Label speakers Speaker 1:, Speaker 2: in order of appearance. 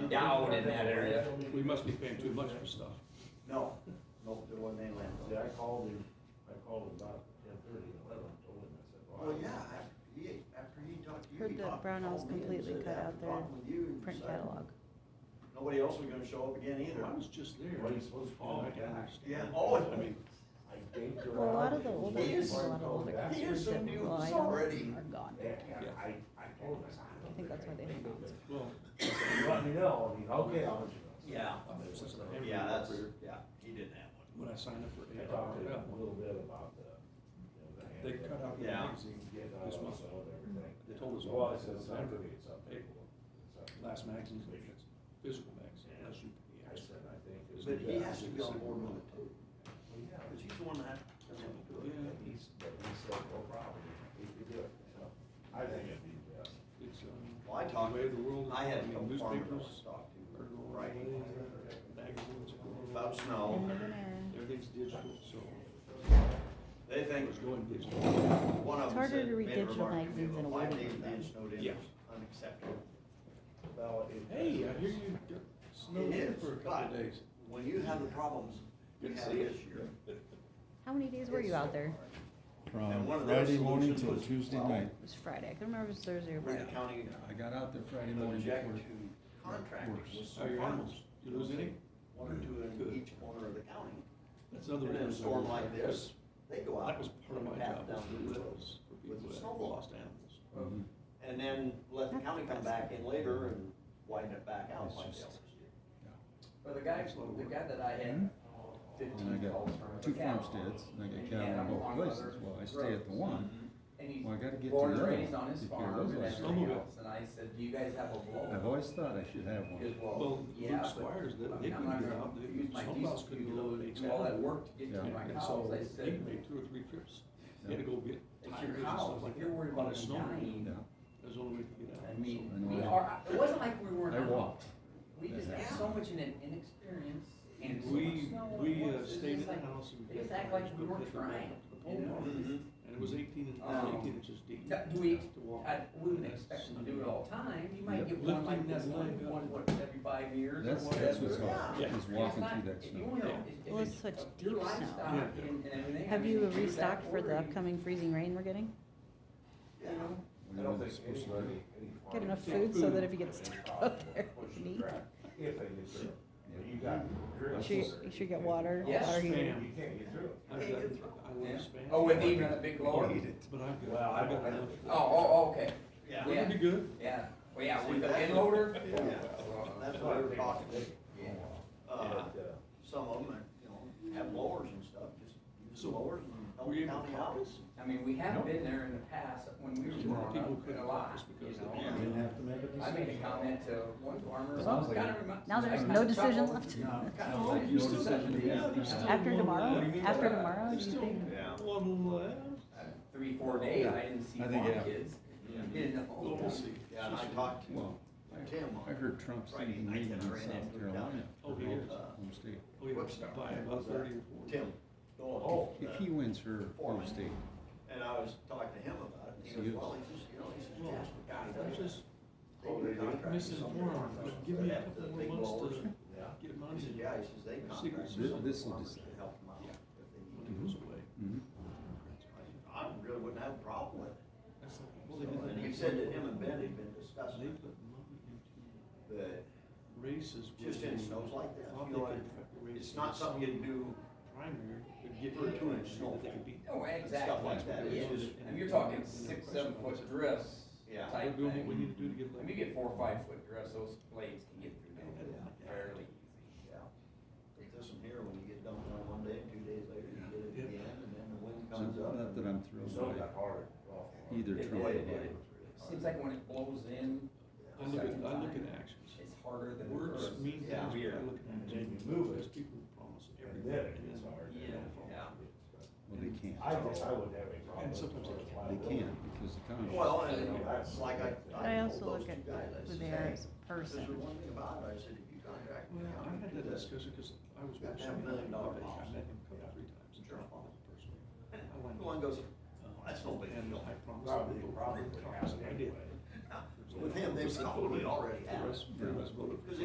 Speaker 1: endowed in that area.
Speaker 2: We must be paying too much for stuff.
Speaker 3: No, no, there wasn't any landfill.
Speaker 4: See, I called him, I called him about ten thirty, eleven, told him, I said, well.
Speaker 3: Well, yeah, after he, after he talked to you,
Speaker 5: Heard
Speaker 3: he
Speaker 5: that
Speaker 3: talked,
Speaker 5: Brownells
Speaker 3: called me and
Speaker 5: completely
Speaker 3: said,
Speaker 5: cut
Speaker 3: after
Speaker 5: out their
Speaker 3: talking with you, you
Speaker 5: print
Speaker 3: decided
Speaker 5: catalog.
Speaker 3: Nobody else was gonna show up again either.
Speaker 2: I was just there.
Speaker 4: What are you supposed to do?
Speaker 2: Oh, I can understand.
Speaker 3: Yeah, oh,
Speaker 2: I mean,
Speaker 4: I dinked around.
Speaker 5: Well, a lot of the older,
Speaker 3: He
Speaker 5: people, a lot
Speaker 3: assumed-
Speaker 5: of older
Speaker 4: That's-
Speaker 3: he
Speaker 5: kids that,
Speaker 3: assumed you
Speaker 5: well, I
Speaker 3: was
Speaker 5: know,
Speaker 3: already-
Speaker 5: are gone.
Speaker 4: Yeah, yeah, I, I told him, I said, I don't
Speaker 5: I think that's why they
Speaker 4: think
Speaker 5: hung
Speaker 4: I
Speaker 5: on.
Speaker 4: made it.
Speaker 2: well,
Speaker 4: You Let me know, and he, okay, I'll let you know.
Speaker 3: Yeah.
Speaker 2: every-
Speaker 3: Yeah, that's, yeah, he didn't have one.
Speaker 2: when I signed up
Speaker 4: I
Speaker 2: for eight
Speaker 4: talked to
Speaker 2: hour,
Speaker 4: him a
Speaker 2: yeah,
Speaker 4: little bit about the, you know, the.
Speaker 2: they
Speaker 4: handbook.
Speaker 2: cut out the
Speaker 3: Yeah.
Speaker 2: magazine
Speaker 4: Get out
Speaker 2: this
Speaker 4: of
Speaker 2: month,
Speaker 4: the cell and everything.
Speaker 2: They told us all
Speaker 4: Well, I
Speaker 2: that.
Speaker 4: said, it's not gonna be, it's up to
Speaker 2: Hey,
Speaker 4: you. It's up to you."
Speaker 2: last magazine, it's physical magazine, unless you.
Speaker 4: I said, I think. it's-
Speaker 3: But he
Speaker 2: Yeah.
Speaker 3: has to be on board with it too,
Speaker 4: Well, yeah,
Speaker 3: cause he's the one that.
Speaker 2: Yeah.
Speaker 4: But he's, but he said, no problem, he could do it, so, I think it'd be best.
Speaker 2: It's, um.
Speaker 3: Well, I talked,
Speaker 2: the way the world-
Speaker 3: I had a
Speaker 2: I mean,
Speaker 3: couple farmers I
Speaker 2: newspapers
Speaker 3: talked to,
Speaker 2: are going
Speaker 3: right,
Speaker 2: away, Magazines are going away.
Speaker 3: about snow,
Speaker 2: Everything's digital, so
Speaker 3: they think,
Speaker 2: it's going digital.
Speaker 3: one of
Speaker 5: It's
Speaker 3: them
Speaker 5: harder
Speaker 3: said,
Speaker 5: to read
Speaker 3: made a
Speaker 5: digital
Speaker 3: remark to me,
Speaker 5: magazines than a
Speaker 3: "Well, five
Speaker 5: word
Speaker 3: days
Speaker 5: like
Speaker 3: being
Speaker 5: that."
Speaker 3: snowed in
Speaker 2: Yeah.
Speaker 3: is unacceptable.
Speaker 4: Well, it.
Speaker 2: Hey, I hear you got snow
Speaker 3: It
Speaker 2: here
Speaker 3: is,
Speaker 2: for a couple of
Speaker 3: but-
Speaker 2: days.
Speaker 3: When you have the problems you
Speaker 2: Good to
Speaker 3: had
Speaker 2: see you.
Speaker 3: this year.
Speaker 5: How many days were
Speaker 3: it's
Speaker 5: you
Speaker 3: so
Speaker 5: out there?
Speaker 3: hard. And one
Speaker 6: From
Speaker 3: of their
Speaker 6: Friday morning
Speaker 3: solutions
Speaker 6: till
Speaker 3: was,
Speaker 6: Tuesday
Speaker 3: well,
Speaker 6: night.
Speaker 5: It was Friday. I can remember it was Thursday or
Speaker 3: Grant
Speaker 5: Friday.
Speaker 3: County
Speaker 6: I got out there Friday morning
Speaker 3: object
Speaker 6: before.
Speaker 3: to contracting with
Speaker 2: How are
Speaker 3: some
Speaker 2: your
Speaker 3: farmers.
Speaker 2: animals? Oh, You lose any?
Speaker 3: One or two in
Speaker 2: Good.
Speaker 3: each corner of the county.
Speaker 2: That's another
Speaker 3: And in a
Speaker 2: reason I
Speaker 3: storm
Speaker 2: was
Speaker 3: like
Speaker 2: there, 'cause
Speaker 3: this, they go out.
Speaker 2: That was part of my
Speaker 3: path
Speaker 2: job, was
Speaker 3: down
Speaker 2: to
Speaker 3: the
Speaker 2: do that,
Speaker 3: road.
Speaker 2: was for
Speaker 3: with
Speaker 2: people
Speaker 3: the
Speaker 2: that
Speaker 3: snow
Speaker 2: lost animals.
Speaker 6: Mhm.
Speaker 3: And then let the county come back in later and widen it back out
Speaker 6: It's
Speaker 3: like
Speaker 6: just-
Speaker 3: the others did.
Speaker 7: But the guy, the guy that I had
Speaker 6: And I
Speaker 7: fifteen
Speaker 6: got
Speaker 7: calls from.
Speaker 6: two
Speaker 7: the cattle.
Speaker 6: farmsteads and I got cattle in both places. Well, I stay at the one.
Speaker 7: And he's
Speaker 6: Well, I gotta get to
Speaker 7: born and
Speaker 6: the other
Speaker 7: raised
Speaker 6: one
Speaker 7: on his
Speaker 6: to care
Speaker 7: farm
Speaker 6: those
Speaker 7: and
Speaker 6: last
Speaker 7: everything
Speaker 2: two.
Speaker 7: else, and I said, do you guys have a blow?
Speaker 6: I've always thought I should have
Speaker 7: He goes,
Speaker 2: Well,
Speaker 6: one.
Speaker 7: well, yeah,
Speaker 2: Luke
Speaker 7: but.
Speaker 2: Squires, they-
Speaker 7: I mean,
Speaker 2: they
Speaker 7: I'm
Speaker 2: couldn't
Speaker 7: not
Speaker 2: get
Speaker 7: gonna
Speaker 2: out. They-
Speaker 7: Use my
Speaker 2: some
Speaker 7: diesel
Speaker 2: cows couldn't
Speaker 7: fuel
Speaker 2: get out
Speaker 7: to
Speaker 2: of
Speaker 7: do all that
Speaker 2: Exxon.
Speaker 7: work to get to
Speaker 6: Yeah.
Speaker 7: my
Speaker 2: And
Speaker 7: cows,
Speaker 2: so
Speaker 7: I
Speaker 2: he
Speaker 7: said,
Speaker 2: made two or three trips. He had to go get
Speaker 7: it's
Speaker 2: tires
Speaker 7: your
Speaker 2: and
Speaker 7: cows,
Speaker 2: stuff like
Speaker 7: if you're
Speaker 2: that
Speaker 7: worried
Speaker 2: on a
Speaker 7: about them
Speaker 2: snowmobile.
Speaker 7: dying,
Speaker 6: Yeah.
Speaker 2: That's the only way to get out.
Speaker 7: I mean,
Speaker 6: I
Speaker 7: we
Speaker 6: know that.
Speaker 7: are, it wasn't like we weren't.
Speaker 6: I
Speaker 7: out.
Speaker 6: walked.
Speaker 7: We just
Speaker 6: Yeah.
Speaker 7: had so much in inexperience and so much
Speaker 2: We,
Speaker 7: snow.
Speaker 2: we
Speaker 7: and
Speaker 2: uh,
Speaker 7: it's just
Speaker 2: stayed in the
Speaker 7: like-
Speaker 2: house and.
Speaker 7: they
Speaker 2: got
Speaker 7: just act
Speaker 2: tires,
Speaker 7: like we
Speaker 2: but
Speaker 7: weren't
Speaker 2: had to walk
Speaker 7: trying,
Speaker 2: up the
Speaker 7: you
Speaker 2: pole
Speaker 7: know?
Speaker 3: Mm-hmm.
Speaker 2: barn, And it was eighteen, and-
Speaker 7: Um,
Speaker 2: eighteen inches deep.
Speaker 7: Now, Do we,
Speaker 2: to walk.
Speaker 7: I, we wouldn't expect them to do it all the time, you might
Speaker 6: Yeah.
Speaker 7: get one like
Speaker 2: Lifting
Speaker 7: this
Speaker 2: that
Speaker 7: one,
Speaker 2: leg up.
Speaker 7: one, what, every five years or
Speaker 6: That's, that's what's
Speaker 7: whatever.
Speaker 6: hard,
Speaker 2: Yeah.
Speaker 6: is
Speaker 7: And
Speaker 6: walking
Speaker 7: it's not-
Speaker 6: through that
Speaker 7: if you
Speaker 6: snow.
Speaker 7: wanna-
Speaker 2: Yeah.
Speaker 7: if- if
Speaker 5: Well, it's
Speaker 7: it's
Speaker 5: such
Speaker 7: of
Speaker 5: deep
Speaker 7: your
Speaker 5: snow.
Speaker 7: livestock
Speaker 2: Yeah.
Speaker 7: and- and everything, I
Speaker 5: Have
Speaker 7: mean,
Speaker 5: you
Speaker 7: do that
Speaker 5: restocked for the
Speaker 7: order,
Speaker 5: upcoming freezing rain we're getting?
Speaker 7: You know,
Speaker 6: We
Speaker 4: I don't
Speaker 6: were
Speaker 4: think
Speaker 6: supposed to
Speaker 4: anybody,
Speaker 6: do-
Speaker 4: any
Speaker 5: Get
Speaker 4: farmer-
Speaker 5: enough
Speaker 2: Yeah.
Speaker 5: food so that if
Speaker 2: Food.
Speaker 5: you get stuck out there,
Speaker 4: Push
Speaker 5: you
Speaker 4: the
Speaker 5: need.
Speaker 4: track, If they get through. But you got.
Speaker 6: Make
Speaker 5: Sure,
Speaker 4: drills.
Speaker 5: you should get water,
Speaker 7: Yes,
Speaker 5: water heater.
Speaker 2: ma'am.
Speaker 4: You can't get through.
Speaker 2: I've
Speaker 3: Hey,
Speaker 2: got-
Speaker 3: good throw.
Speaker 2: I
Speaker 7: Yeah.
Speaker 2: love Spanish.
Speaker 7: Oh, with even a big blower?
Speaker 6: Eat it.
Speaker 2: But I've
Speaker 4: Well,
Speaker 2: got,
Speaker 4: I
Speaker 2: I've got
Speaker 4: don't-
Speaker 2: enough.
Speaker 7: Oh, oh, oh, okay,
Speaker 3: Yeah.
Speaker 2: Well, it'd be good.
Speaker 7: yeah, well, yeah,
Speaker 3: See,
Speaker 7: with the
Speaker 3: that's-
Speaker 7: bin loader?
Speaker 3: Yeah. That's why we're talking,
Speaker 7: Yeah.
Speaker 3: uh,
Speaker 4: And, uh,
Speaker 3: some of them, you know, have blowers and stuff, just use
Speaker 2: So,
Speaker 3: blowers and help
Speaker 2: were
Speaker 3: the
Speaker 2: you able
Speaker 3: county
Speaker 2: to
Speaker 3: out.
Speaker 2: caucus?
Speaker 7: I mean, we have been there in the past, when we were
Speaker 2: People
Speaker 7: growing up,
Speaker 2: couldn't
Speaker 7: a lot,
Speaker 2: caucus
Speaker 7: you
Speaker 2: because
Speaker 7: know?
Speaker 2: they
Speaker 6: Didn't
Speaker 4: uh,
Speaker 6: have to make a
Speaker 7: I made a
Speaker 6: decision.
Speaker 7: comment to one farmer.
Speaker 6: Sounds like
Speaker 7: kinda
Speaker 6: it.
Speaker 7: remi-
Speaker 5: Now there's
Speaker 7: kinda
Speaker 5: no
Speaker 7: like
Speaker 5: decision
Speaker 7: trouble.
Speaker 5: left.
Speaker 7: No, kinda
Speaker 2: No,
Speaker 7: like-
Speaker 2: you
Speaker 6: no
Speaker 2: still
Speaker 6: decision
Speaker 2: have-
Speaker 6: to be
Speaker 2: yeah,
Speaker 6: made.
Speaker 2: there's still
Speaker 5: After
Speaker 2: one
Speaker 5: tomorrow?
Speaker 2: left.
Speaker 5: After
Speaker 7: Yeah.
Speaker 5: tomorrow,
Speaker 2: There's
Speaker 5: you
Speaker 2: still
Speaker 5: think?
Speaker 3: Yeah.
Speaker 2: One left.
Speaker 7: Uh, Three, four days, I didn't see
Speaker 6: I
Speaker 7: farm
Speaker 6: think, yeah.
Speaker 7: kids, you
Speaker 2: Well,
Speaker 7: know?
Speaker 2: we'll see.
Speaker 3: Yeah, and I talked to
Speaker 6: Well,
Speaker 3: Tim
Speaker 6: I
Speaker 3: on,
Speaker 6: heard Trump's
Speaker 3: Friday
Speaker 6: leaving
Speaker 3: night,
Speaker 6: meeting in
Speaker 3: and I ran into
Speaker 6: South
Speaker 3: him
Speaker 6: Carolina.
Speaker 3: down
Speaker 2: Oh,
Speaker 6: for
Speaker 2: he
Speaker 6: home-
Speaker 2: is.
Speaker 6: home state.
Speaker 2: Oh, yeah,
Speaker 3: Quickstar.
Speaker 2: by about thirty or forty.
Speaker 3: Tim,
Speaker 4: Oh.
Speaker 3: Dolan,
Speaker 6: If he wins her home state,
Speaker 3: and I was talking to him about it, and he goes, well, he's just, you know, he's just,
Speaker 2: Well,
Speaker 3: yeah, God,
Speaker 2: I'm
Speaker 3: that's
Speaker 2: just
Speaker 3: just. Oh, they do contract
Speaker 2: misinformed, but give me a couple
Speaker 3: Big
Speaker 2: more months
Speaker 3: blowers.
Speaker 2: to
Speaker 4: Yeah.
Speaker 2: get
Speaker 3: He
Speaker 2: money.
Speaker 3: says, yeah, he says they contract
Speaker 2: Secret
Speaker 3: some
Speaker 6: This will
Speaker 3: farmers to
Speaker 6: decide.
Speaker 3: help them out
Speaker 2: Yeah.
Speaker 3: if they
Speaker 2: When
Speaker 3: need
Speaker 2: it goes away.
Speaker 6: Mhm.
Speaker 3: to. I said, I really wouldn't have a problem with it.
Speaker 2: That's not-
Speaker 3: So,
Speaker 2: well, they did that
Speaker 3: And he
Speaker 2: in-
Speaker 3: said that him and Ben had been
Speaker 2: They
Speaker 3: discussing,
Speaker 2: put money into
Speaker 3: that
Speaker 2: races. where
Speaker 3: just in
Speaker 2: they
Speaker 3: snows like that,
Speaker 2: thought
Speaker 3: you
Speaker 2: they
Speaker 3: know,
Speaker 2: could
Speaker 3: it-
Speaker 2: affect the race
Speaker 3: it's not
Speaker 2: in
Speaker 3: something you do,
Speaker 2: Primary, but get
Speaker 3: For
Speaker 2: rid
Speaker 3: a
Speaker 2: of
Speaker 3: two-inch
Speaker 2: it,
Speaker 3: snow.
Speaker 2: they could be.
Speaker 7: Oh,
Speaker 3: stuff
Speaker 7: exactly,
Speaker 3: like that,
Speaker 7: yeah,
Speaker 3: it's just,
Speaker 7: and you're talking six, seven foot drifts
Speaker 3: Yeah.
Speaker 2: We're
Speaker 7: type
Speaker 2: doing what we
Speaker 7: thing.
Speaker 2: need to do to get
Speaker 7: When
Speaker 2: like.
Speaker 7: you get four or five foot drifts, those blades can get through there fairly easy.
Speaker 3: yeah. But this one here, when you get done with it one day, two days later, you get it
Speaker 2: Yeah.
Speaker 3: again, and then the wind
Speaker 6: So
Speaker 3: comes up.
Speaker 6: not that I'm thrilled
Speaker 4: So
Speaker 6: by
Speaker 4: that hard. rough hard.
Speaker 6: either
Speaker 7: It-
Speaker 6: Trump or
Speaker 3: it-
Speaker 6: Biden.
Speaker 7: Seems like when it blows in,
Speaker 2: I look at, I look at actions.
Speaker 7: it's harder than.
Speaker 2: Words
Speaker 7: first.
Speaker 2: mean things, but
Speaker 3: Yeah.
Speaker 2: I look at
Speaker 3: Mm-hmm.
Speaker 4: And then
Speaker 2: actions.
Speaker 4: you move
Speaker 2: Because
Speaker 4: it,
Speaker 2: people promise
Speaker 4: and then
Speaker 2: everything.
Speaker 4: it gets hard.
Speaker 2: and then they
Speaker 3: Yeah.
Speaker 6: Well, they can't.
Speaker 4: I guess I would have a problem.
Speaker 2: And sometimes
Speaker 4: with
Speaker 2: they
Speaker 6: They
Speaker 4: liability.
Speaker 6: can't because the Congress.
Speaker 3: Well, and that's like I.
Speaker 5: But I
Speaker 3: told
Speaker 5: also
Speaker 3: those
Speaker 5: look
Speaker 3: two
Speaker 5: at
Speaker 3: guys, I
Speaker 5: who
Speaker 3: said,
Speaker 5: they are
Speaker 3: "Hey,
Speaker 5: as
Speaker 3: This is
Speaker 5: a
Speaker 3: the
Speaker 5: person.
Speaker 3: one thing about it, I said, if you contract
Speaker 2: Well,
Speaker 3: the
Speaker 2: I
Speaker 3: county
Speaker 2: had
Speaker 3: to do
Speaker 2: that
Speaker 3: this,
Speaker 2: discussion because I was.
Speaker 3: Got
Speaker 2: with
Speaker 3: that
Speaker 2: somebody,
Speaker 3: million dollar
Speaker 2: I
Speaker 3: boss.
Speaker 2: met him a couple,
Speaker 3: Yeah.
Speaker 2: three times.
Speaker 3: Sure.
Speaker 2: Personally. I
Speaker 3: and
Speaker 2: wanted-
Speaker 3: the one goes,
Speaker 2: uh,
Speaker 3: Oh, that's no big
Speaker 2: And
Speaker 3: deal.
Speaker 2: I promised. I
Speaker 4: Probably,
Speaker 2: would vote for
Speaker 4: probably
Speaker 2: him,
Speaker 4: would
Speaker 2: promised,
Speaker 4: happen
Speaker 2: and I did.
Speaker 4: anyway.
Speaker 3: With him, they probably already
Speaker 2: The
Speaker 3: have it.
Speaker 2: rest, the rest voted for.
Speaker 3: Because
Speaker 2: Trump.